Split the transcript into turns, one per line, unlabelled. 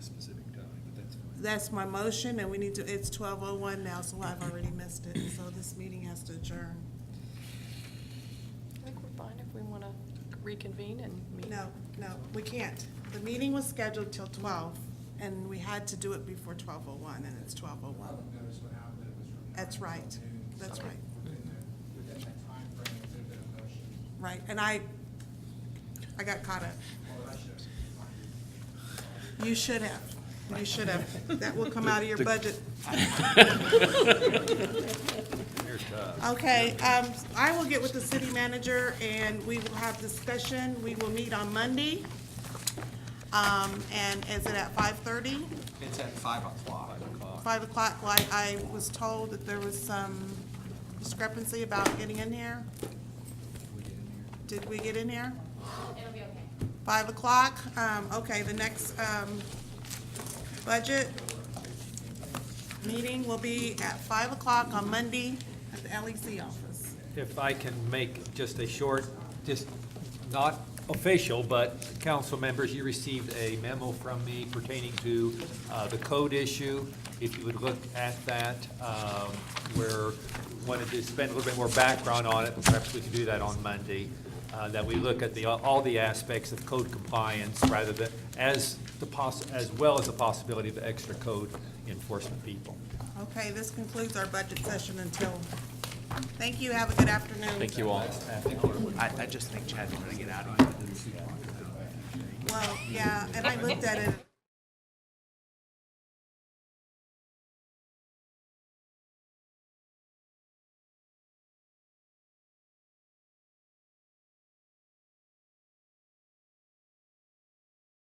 that's my motion, and we need to, it's twelve oh one now, so I've already missed it, so this meeting has to adjourn.
I think we're fine if we want to reconvene and meet.
No, no, we can't. The meeting was scheduled till twelve, and we had to do it before twelve oh one, and it's twelve oh one.
Public notice went out that it was from nine
That's
till
right.
noon.
That's
So
right.
Within the, within that timeframe, if there'd been a motion,
Right, and I, I got caught up.
well, I should have responded.
You should have. You should have. That will come out of your budget. Okay, um, I will get with the city manager and we will have discussion. We will meet on Monday. Um, and is it at five thirty?
It's at five o'clock.
Five o'clock, like I was told that there was some discrepancy about getting in here. Did we get in here?
It'll be okay.
Five o'clock, um, okay, the next, um, budget meeting will be at five o'clock on Monday at the LEC office.
If I can make just a short, just not official, but council members, you received a memo from me pertaining to uh, the code issue. If you would look at that, um, where wanted to spend a little bit more background on it, perhaps we can do that on Monday, uh, that we look at the, all the aspects of code compliance rather than, as the poss, as well as the possibility of extra code enforcement people.
Okay, this concludes our budget session until, thank you, have a good afternoon. Thank you all.
I, I just think Chad's gonna get out of here.
Well, yeah, and I looked at it.